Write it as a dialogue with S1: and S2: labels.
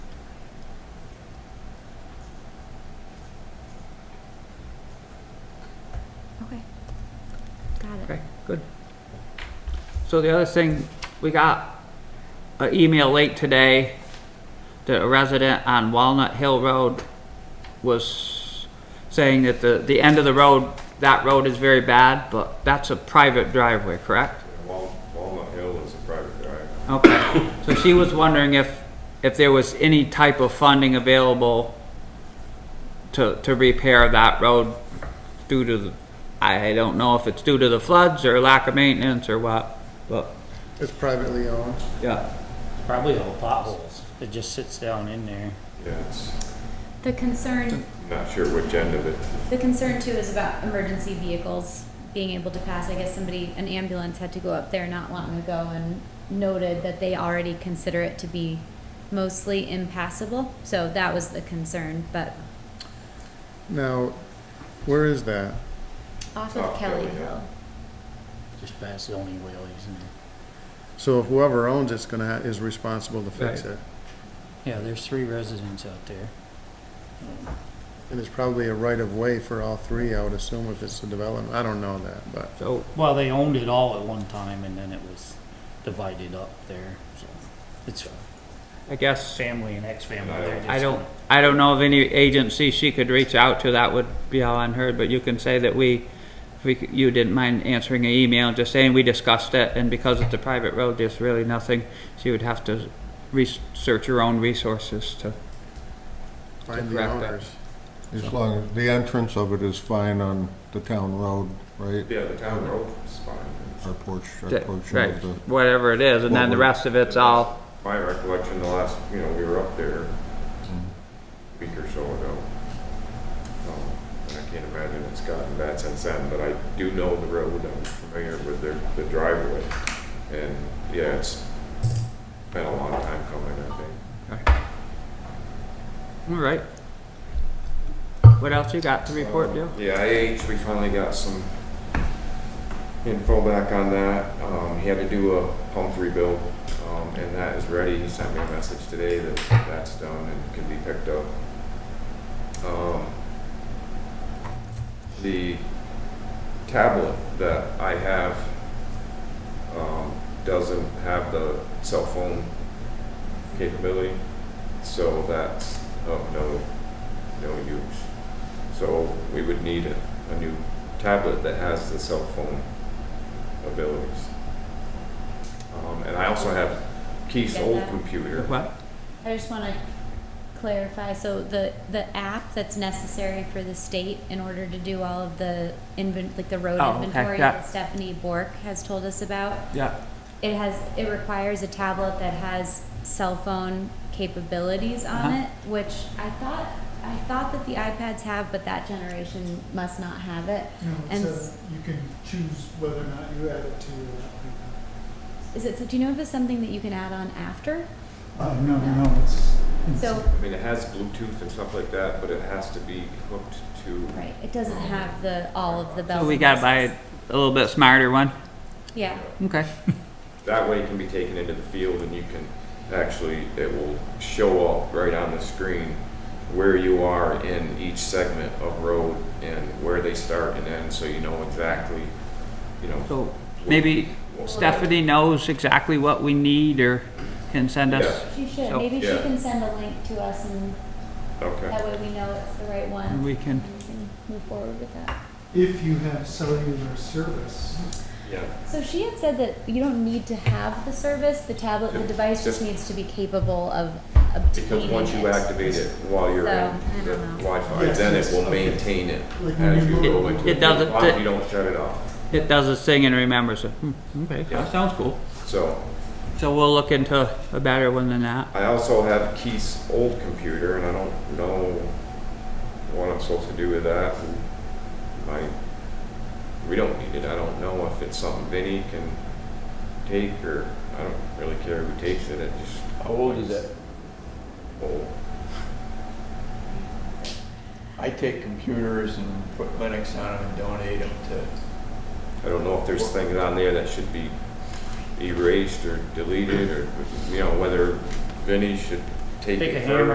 S1: Okay, good. So the other thing, we got an email late today that a resident on Walnut Hill Road was saying that the, the end of the road, that road is very bad, but that's a private driveway, correct?
S2: Wal- Walnut Hill is a private drive.
S1: Okay, so she was wondering if, if there was any type of funding available to, to repair that road due to the, I don't know if it's due to the floods or lack of maintenance or what, but,
S3: It's privately owned.
S1: yeah.
S4: Probably all potholes. It just sits down in there.
S2: Yeah, it's
S5: The concern,
S2: not sure which end of it.
S5: the concern too is about emergency vehicles being able to pass. I guess somebody, an ambulance had to go up there not long ago and noted that they already consider it to be mostly impassable. So that was the concern, but
S3: Now, where is that?
S5: off
S2: Off
S5: of
S2: Kelly
S5: Kelly
S2: Hill.
S5: Hill.
S4: Just past the only wheelies and
S3: So whoever owns it's gonna, ha- is responsible to fix
S1: Right.
S3: it.
S4: yeah, there's three residents out there.
S3: And there's probably a right of way for all three, I would assume, if it's a development. I don't know that, but
S1: So,
S4: Well, they owned it all at one time and then it was divided up there. So it's
S1: I guess,
S4: family and ex-family. They're just-
S1: I don't, I don't know of any agency she could reach out to that would be all on her, but you can say that we, if we, you didn't mind answering an email, just saying we discussed it, and because it's a private road, there's really nothing, she would have to research her own resources to.
S3: find the
S1: Correct that.
S3: owners.
S6: As long as, the entrance of it is fine on the town road, right?
S2: Yeah, the town road is fine.
S6: Our porch, our
S1: that-
S6: portion
S1: Right,
S6: of the,
S1: whatever it is, and then the rest of it's all,
S2: My recollection, the last, you know, we were up there a week or so ago. Um, And I can't imagine it's gotten bad since then, but I do know the road. I'm familiar with their, the driveway. And yeah, it's been a long time coming, I think.
S1: all right. What else you got to report, Joe?
S2: Um, Yeah, IH, we finally got some info back on that. Um, he had to do a pump rebuild, um, and that is ready. He sent me a message today that that's done and can be picked up. Um, the tablet that I have, um, doesn't have the cell phone capability, so that's of no, no use. So we would need a, a new tablet that has the cell phone abilities. Um, and I also have Keith's
S5: Get
S2: old
S5: that?
S2: computer.
S1: What?
S5: I just want to clarify, so the, the app that's necessary for the state in order to do all of the invent, like the road
S1: Oh, okay,
S5: inventory
S1: yeah.
S5: that Stephanie Bork has told us about,
S1: Yeah,
S5: it has, it requires a tablet that has cell phone capabilities on
S1: Uh-huh.
S5: it, which I thought, I thought that the iPads have, but that generation must not have it.
S7: No,
S5: And
S7: it's
S5: s-
S7: a, you can choose whether or not you add it to your app.
S5: Is it, do you know if it's something that you can add on after?
S7: Oh, no, no, it's. it's-
S5: So,
S2: I mean, it has Bluetooth and stuff like that, but it has to be hooked to.
S5: right, it doesn't have the, all of the bells
S1: so we
S5: and
S1: gotta buy
S5: whistles.
S1: a little bit smarter one,
S5: Yeah.
S1: okay.
S2: That way it can be taken into the field and you can actually, it will show up right on the screen where you are in each segment of road and where they start and end, so you know exactly, you know.
S1: So maybe
S2: what-
S1: Stephanie knows exactly what we need or can send us.
S5: She should.
S1: So-
S5: Maybe she
S2: Yeah.
S5: can send a link to us and
S2: Okay.
S5: that way we know it's the right one.
S1: And we can-
S5: and we can move forward with that.
S7: If you have cellular service,
S2: Yeah.
S5: So she had said that you don't need to have the service, the tablet, the
S2: Yeah,
S5: device just
S2: just-
S5: needs to be capable of obtaining
S2: Because once you
S5: it.
S2: activate it while you're
S5: So, I
S2: in the
S5: don't know.
S2: Wi-Fi,
S7: Yes,
S2: then it
S7: yes,
S2: will
S7: okay.
S2: maintain it
S7: Like when
S2: as
S7: you
S2: you go
S7: move-
S2: into
S1: It
S2: the
S1: doesn't-
S2: cloud,
S1: it-
S2: you don't shut it off.
S1: It does its thing and remembers it. Hmm, Okay,
S2: Yeah.
S1: that sounds cool.
S2: So
S1: So we'll look into a better one than that.
S2: I also have Keith's old computer, and I don't know what I'm supposed to do with that. I, we don't need it. I don't know if it's something Vinny can take, or I don't really care who takes it. It just oh,
S8: How old is it?
S2: old.
S8: I take computers and put Linux on them and donate them to,
S2: I don't know if there's things on there that should be erased or deleted, or you know whether Vinny should take
S4: Take
S2: it
S4: a
S2: further.